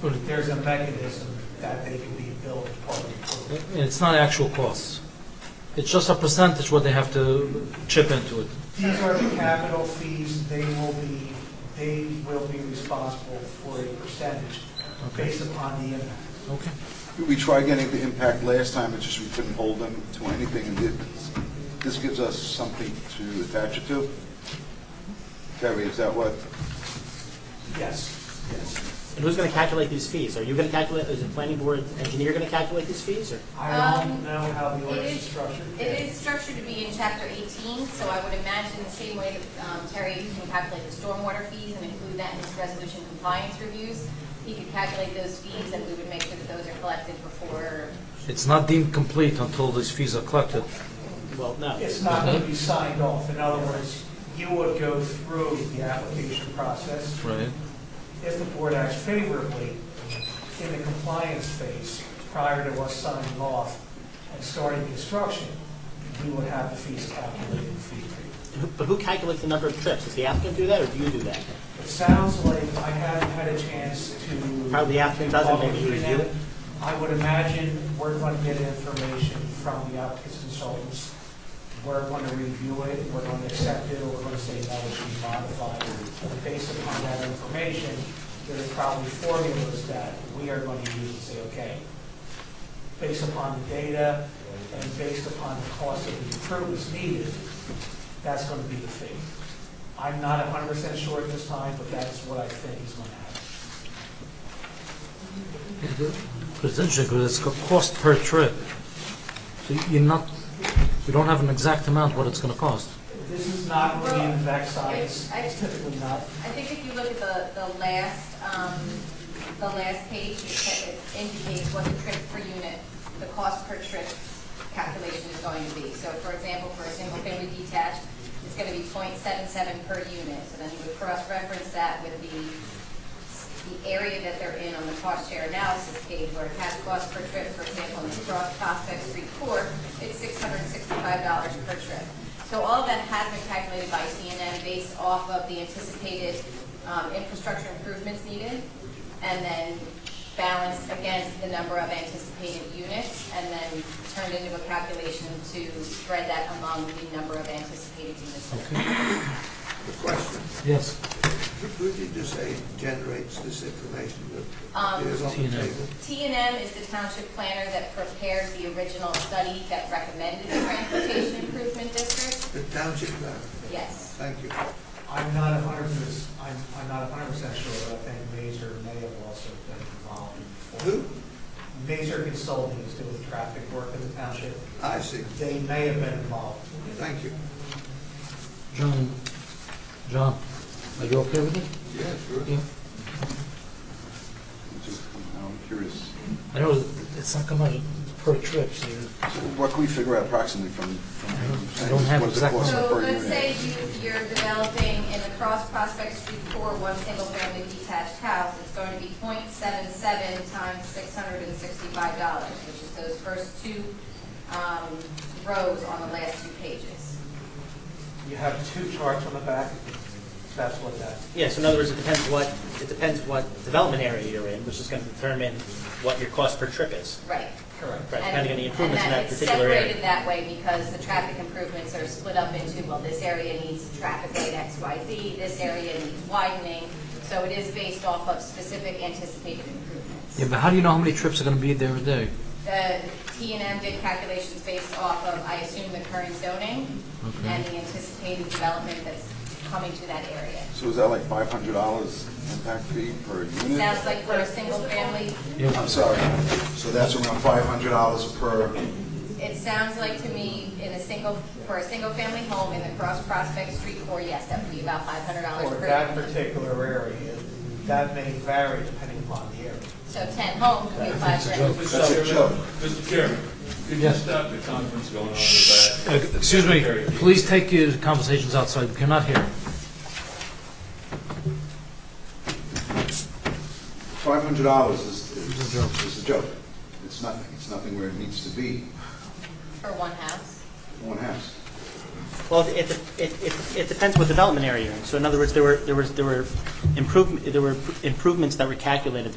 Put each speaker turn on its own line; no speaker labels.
But it-
There's a mechanism that they can be billed public.
and it's not actual costs. It's just a percentage what they have to chip into it.
These are the capital fees, they will be, they will be responsible for a percentage based upon the impact.
Okay.
We tried getting the impact last time, it's just we couldn't hold them to anything, and this- this gives us something to attach it to. Terry, is that what?
Yes, yes.
And who's going to calculate these fees? Are you going to calculate, is the planning board engineer going to calculate these fees, or?
I don't
Um,
know how the
it
ordinance
is-
is structured.
It is structured to be in chapter 18, so I would imagine the same way that um, Terry can calculate the stormwater fees and include that in his resolution compliance reviews, he could calculate those fees and we would make sure that those are collected before,
It's not deemed complete until these fees are collected.
Well, no.
It's not going to be signed off. In other words, you would go through the application process.
Right.
If the board acts favorably in the compliance phase prior to us signing off and starting construction, we would have the fees calculated and fee paid.
Who- But who calculates the number of trips? Does the applicant do that, or do you do that?
It sounds like I haven't had a chance to.
Probably the applicant doesn't, maybe you review it.
I would imagine we're going to get information from the applicant's consultants. We're going to review it, we're going to accept it, or we're going to say that should be modified. And Based upon that information, there are probably formulas that we are going to use and say, okay, based upon the data and based upon the cost of the improvements needed, that's going to be the fee. I'm not 100% sure at this time, but that's what I think is going to happen.
It's interesting because it's a cost per trip. So you're not, you don't have an exact amount what it's going to cost.
This is not really an exact science,
I- I-
it's typically not.
I think if you look at the, the last, um, the last page, it sa- it indicates what the trip per unit, the cost per trip calculation is going to be. So for example, for a single family detached, it's going to be 0.77 per unit. So then you would cross-reference that with the, the area that they're in on the cost share analysis page, where cash cost per trip, for example, in the Cross Prospect Street Court, it's six hundred and sixty-five dollars per trip. So all of that has been calculated by CNN based off of the anticipated um, infrastructure improvements needed, and then balanced against the number of anticipated units, and then turned into a calculation to spread that among the number of anticipated units.
Question,
Yes.
who did you say generates this information that
Um,
is on the
Tina.
table?
TNM is the township planner that prepared the original study that recommended the transportation improvement district.
The township, uh,
Yes.
thank you.
I'm not a hundred percent, I'm, I'm not a hundred percent sure, but I think Major may have also been involved. in-
Who?
Major Consulting is doing traffic work in the township,
I see,
they may have been involved.
thank you.
John, John, are you okay with it?
Yes, sure.
Yeah.
I'm curious.
I know it's not coming per trip, so you
So What can we figure out approximately from, from
I don't- I don't have
what's the
exact
cost
So
per
let's
unit?
say you, you're developing in the Cross Prospect Street Core, one single-family detached house, it's going to be 0.77 times six hundred and sixty-five dollars, which is those first two, um, rows on the last two pages.
You have two charts on the back, that's what that,
Yeah, so in other words, it depends what, it depends what development area you're in, which is going to determine what your cost per trip is.
Right.
correct.
Right,
And-
depending on the improvements in that particular
And that it's separated
area.
that way because the traffic improvements are split up into, well, this area needs traffic light X, Y, Z, this area needs widening, so it is based off of specific anticipated improvements.
Yeah, but how do you know how many trips are going to be there a day?
The T and M did calculations based off of, I assume, the current zoning
Okay.
and the anticipated development that's coming to that area.
So is that like five hundred dollars impact fee per unit?
Sounds like for a single family,
I'm sorry, so that's around five hundred dollars per,
it sounds like to me, in a single, for a single family home in the Cross Prospect Street core, yes, that would be about five hundred dollars
For
per.
that
unit.
particular area, that may vary depending upon the area.
So ten homes would be five grand.
that's a joke.
Mr. Chairman, could you
Yes.
stop the conference going on in the back?
Uh, Excuse me, please take your conversations outside, we cannot hear.
Five hundred dollars is,
It's
is
a joke.
is a joke. It's nothing, it's nothing where it needs to be,
For one house?
one house.
Well, it, it, it, it depends what development area you're in. So in other words, there were, there was, there were improvement, there were improvements that were calculated